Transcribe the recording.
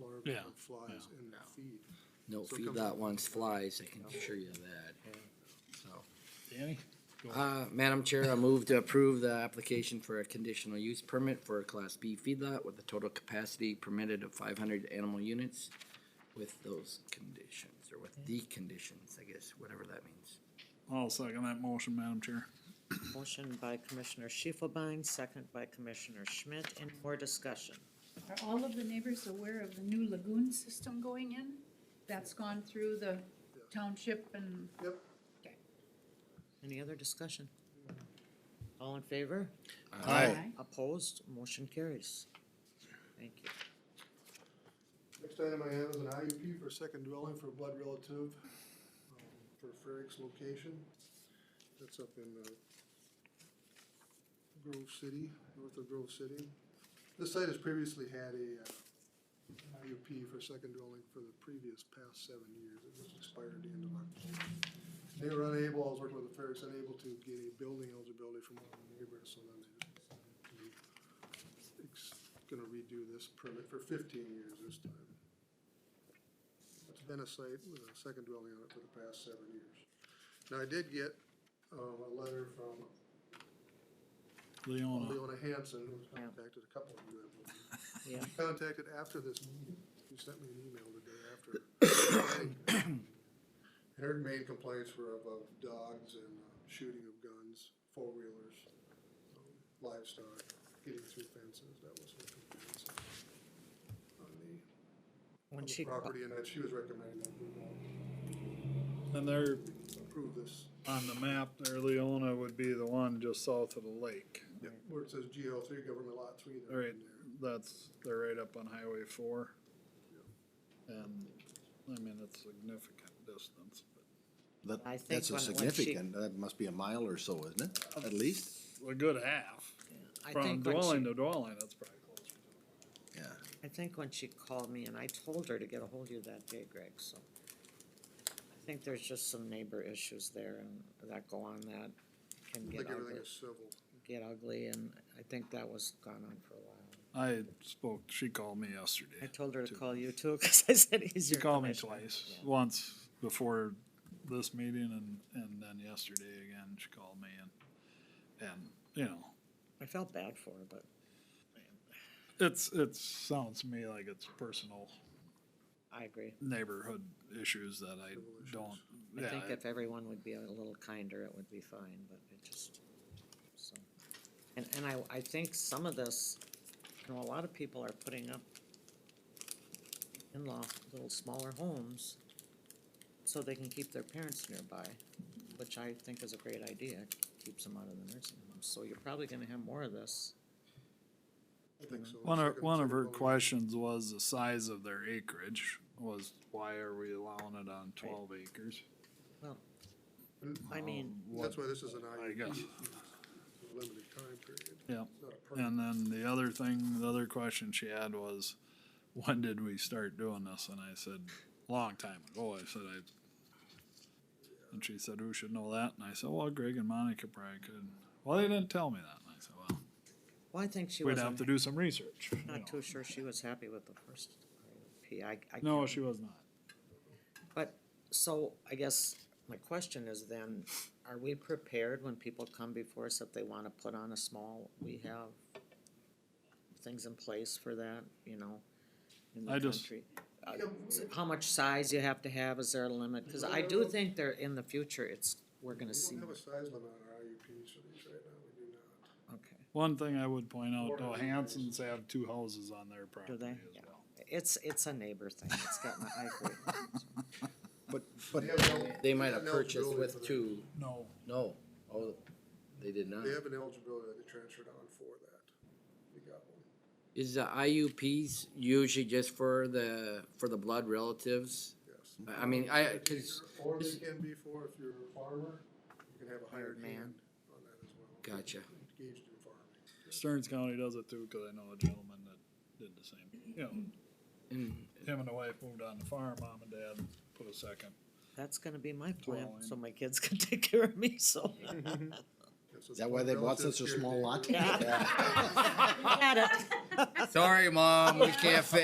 larvae Yeah. of flies and feed. No, So it feed comes that from- once flies, I can assure you of that, so. Danny? Uh, Madam Chair, I move to approve the application for a conditional use permit for a Class B feedlot with a total capacity permitted of five hundred animal units with those conditions, or with the conditions, I guess, whatever that means. I'll second that motion, Madam Chair. Motion by Commissioner Shifelbein, second by Commissioner Schmidt. Any more discussion? Are all of the neighbors aware of the new lagoon system going in? That's gone through the township and Yep, Any other discussion? All in favor? Aye. Opposed? Motion carries. Thank you. next item I have is an IUP for second dwelling for blood relative um, for Ferrick's location. That's up in uh, Grove City, north of Grove City. This site has previously had a uh, IUP for second dwelling for the previous past seven years. It was expired at the end of October. They were unable, I was working with the Ferricks, unable to get a building eligibility from one of the neighbors, so then they just decided to ex- gonna redo this permit for fifteen years this time. It's been a site with a second dwelling on it for the past seven years. Now, I did get, um, a letter from Leona, Leona Hanson, who's Yeah. contacted a couple of you, I believe. Yeah, contacted after this meeting. She sent me an email the day after. Her main complaints were about dogs and uh, shooting of guns, four-wheelers, um, livestock, getting through fences, that was her complaints. On the, on when the she, ca- property, and that she was recommending that we uh, and there, approve this, on the map there, Leona would be the one just south of the lake. where it says GO three, government lot three. they're Right, in there. that's, they're right up on Highway four. And, I mean, it's significant distance, That, I that's think when- a when she- significant, that must be a mile or so, isn't it? At least, but a good half. I From think when she, dwelling to dwelling, that's probably close. yeah. I think when she called me and I told her to get a hold of you that day, Greg, so. I think there's just some neighbor issues there and that go on that can I get think ugly, everything is civil. get ugly and I think that was gone on for a while. I spoke, she called me I yesterday. told her to call you too, cause I said he's She your called me commissioner. twice, Yeah. once before this meeting and, and then yesterday again, she called me and, and, you know, I felt bad for her, but it's, it sounds to me like it's personal I agree. neighborhood issues that I don't, I think yeah, if everyone would be a little kinder, it would be fine, but it just, so. And, and I, I think some of this, you know, a lot of people are putting up in-law, little smaller homes so they can keep their parents nearby, which I think is a great idea, keeps them out of the nursing home. So you're probably gonna have more of this. I think so. One of, Second- one of second her dwelling. questions was the size of their acreage, was why are we allowing it on twelve acres? Um, Well, Mm. I Oh. mean, That's why this is an I IUP, guess, a limited time period, yeah. It's not a permit. And then the other thing, the other question she had was, when did we start doing this? And I said, long time ago. I said, I. And she said, who should know that? And I said, well, Greg and Monica probably could. Well, they didn't tell me that. And I said, well, well, I think she we'd was have to do some research. you know. not too sure she was happy with the first P. I, I. No, can't she was not. But, so I guess my question is then, are we prepared when people come before us if they wanna put on a small, we have things in place for that, you know, in I the just- country? Uh, s- How much size you have to have, is there a limit? Cause I do think there, in the future, it's, we're gonna We see, don't have a size limit on our IUPs for these right now, we do not. okay. One thing I would point out, Four though, hundred Hanson's have two houses on their property they? as Yeah. well. It's, it's a neighbor thing, it's got my, I agree. But, but They have an el- They might have an eligibility purchased for with that. two, No, no, oh, they did not. They have an eligibility that they transferred on for that. We got one. Is the IUPs usually just for the, for the blood relatives? Yes. I- I mean, I, cause, Or they can be for, if you're a farmer, you can have a hired Hired man. man on that as well. Gotcha. Engaged in farming. Stearns County does it too, cause I know a gentleman that did the same, you know, and him and the wife moved on the farm, mom and dad put a second. That's gonna be my plan, Well, so my kids can take care of me, so. That's Is that why they bought relative such a here, small they- lot? Got it. Sorry, mom, we can't fit